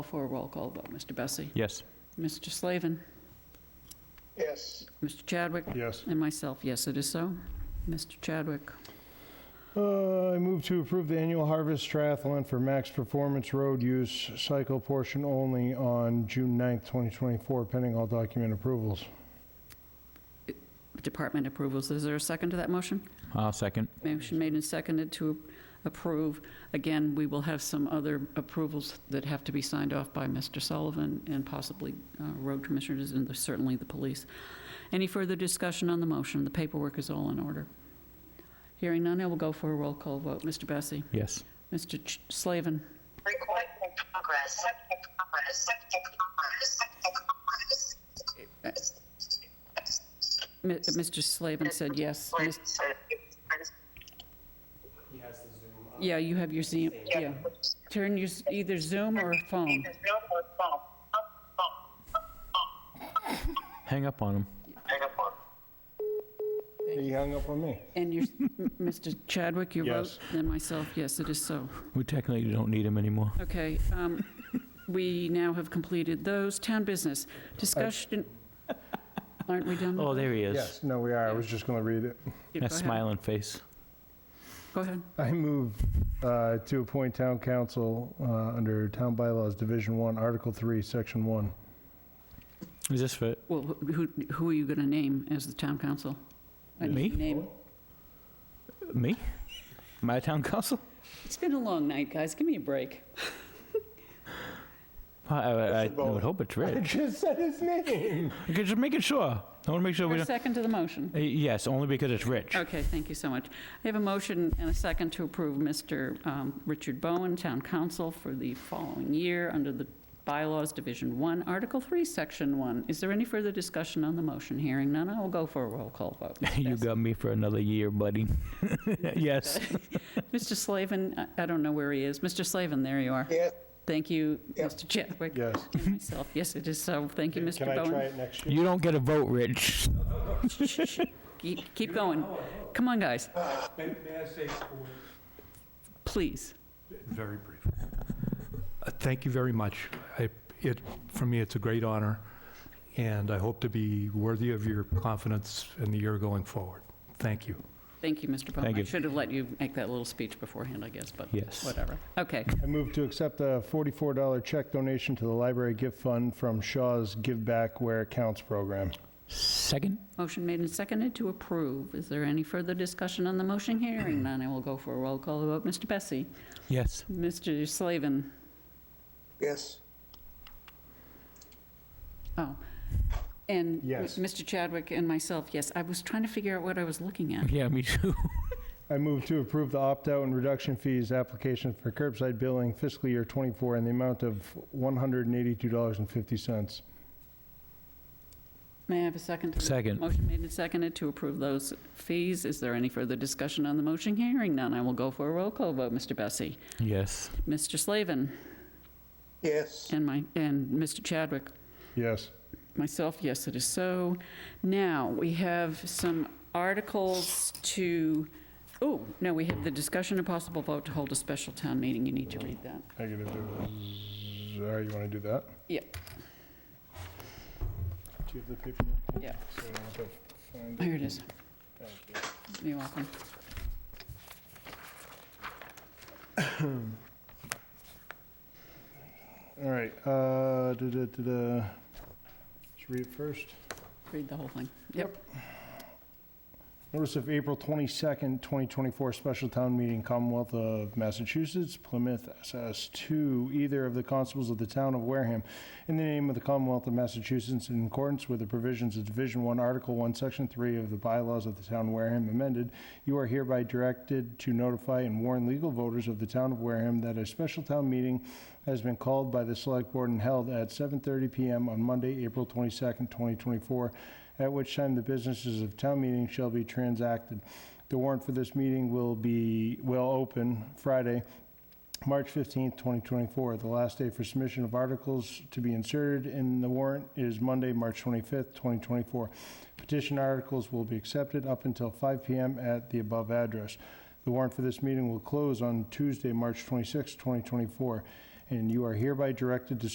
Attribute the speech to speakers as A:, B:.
A: For a roll call vote, Mr. Bessie?
B: Yes.
A: Mr. Slavin?
C: Yes.
A: Mr. Chadwick?
C: Yes.
A: And myself, yes, it is so. Mr. Chadwick?
C: Uh, I move to approve the annual harvest triathlon for max performance road use cycle portion only on June 9th, 2024, pending all document approvals.
A: Department approvals, is there a second to that motion?
B: I'll second.
A: Motion made and seconded to approve. Again, we will have some other approvals that have to be signed off by Mr. Sullivan and possibly uh, road commissioners and certainly the police. Any further discussion on the motion? The paperwork is all in order. Hearing none, I will go for a roll call vote. Mr. Bessie?
B: Yes.
A: Mr. Ch- Slavin?
D: Recording in progress.
A: Mi- Mr. Slavin said yes. Mis- Yeah, you have your Zoom, yeah. Turn your, s- either Zoom or phone.
B: Hang up on him.
C: He hung up on me.
A: And your, Mr. Chadwick, you vote?
C: Yes.
A: And myself, yes, it is so.
B: We technically don't need him anymore.
A: Okay, um, we now have completed those. Town business, discussion, aren't we done? with
B: Oh,
A: that?
B: there he is.
C: Yes, no, we are. I was just going to read it.
A: Yeah, go
B: That
A: ahead.
B: smiling face.
A: Go ahead.
C: I move uh, to appoint town council uh, under Town Bylaws, Division 1, Article 3, Section 1.
B: Is this for
A: Well, wh- who, who are you going to name as the town council? I
B: Me?
A: need a name.
B: me? My town council?
A: It's been a long night, guys, give me a break.
B: I, I, I, I would hope it's
C: I
B: Rich.
C: just said his name.
B: Okay, just making sure. I want to make sure we
A: Your
B: don't.
A: second to the motion.
B: Uh, Yes, only because it's Rich.
A: Okay, thank you so much. I have a motion and a second to approve Mr. um, Richard Bowen, Town Council, for the following year under the bylaws, Division 1, Article 3, Section 1. Is there any further discussion on the motion? Hearing none, I will go for a roll call vote. Ms.
B: You
A: Bessie.
B: got me for another year, buddy. yes.
A: Mr. Slavin, I- I don't know where he is. Mr. Slavin, there you are.
C: Yes.
A: Thank you, Mr. Chadwick.
C: Yes.
A: And myself, yes, it is so. Thank you, Mr. Bowen.
C: it next
B: You don't get a vote, Rich.
A: Keep keep going. Come on, guys,
E: May may I say four words?
A: please.
E: Very brief. Uh, Thank you very much. I- It, for me, it's a great honor, and I hope to be worthy of your confidence in the year going forward. Thank you.
A: Thank you, Mr. Bowen.
B: Thank
A: I
B: you.
A: should have let you make that little speech beforehand, I guess, but
B: Yes.
A: whatever. Okay,
C: I move to accept a $44 check donation to the Library Gift Fund from Shaw's Give Back Where It Counts program.
B: Second?
A: motion made and seconded to approve. Is there any further discussion on the motion? Hearing none, I will go for a roll call vote. Mr. Bessie?
B: Yes.
A: Mr. Slavin?
F: Yes.
A: Oh, and
C: Yes.
A: Mr. Chadwick and myself, yes. I was trying to figure out what I was looking at.
B: Yeah, me too.
C: I move to approve the opt-out and reduction fees application for curbside billing fiscal year '24 in the amount of $182.50.
A: May I have a second? to the-
B: Second.
A: Motion made and seconded to approve those fees. Is there any further discussion on the motion? Hearing none, I will go for a roll call vote. Mr. Bessie?
B: Yes.
A: Mr. Slavin?
F: Yes.
A: And my, and Mr. Chadwick?
C: Yes.
A: Myself, yes, it is so. Now, we have some articles to, oh, no, we have the discussion and possible vote to hold a special town meeting. You need to read that.
C: I gotta do, all right, you wanna do that?
A: Yeah.
C: Do you have the paperwork?
A: Yeah.
C: So I don't have to find
A: Here it is.
C: Thank you.
A: You're welcome.
C: All right, uh, da-da-da-da. Just read it first.
A: Read the whole thing. Yep.
C: Notice of April 22nd, 2024, special town meeting Commonwealth of Massachusetts, Plymouth SS 2, either of the constables of the town of Wareham, in the name of the Commonwealth of Massachusetts, in accordance with the provisions of Division 1, Article 1, Section 3 of the bylaws of the town of Wareham amended, you are hereby directed to notify and warn legal voters of the town of Wareham that a special town meeting has been called by the Select Board and held at 7:30 PM on Monday, April 22nd, 2024, at which time the businesses of town meeting shall be transacted. The warrant for this meeting will be, will open Friday, March 15th, 2024. The last day for submission of articles to be inserted in the warrant is Monday, March 25th, 2024. Petition articles will be accepted up until 5 PM at the above address. The warrant for this meeting will close on Tuesday, March 26th, 2024, and you are hereby directed to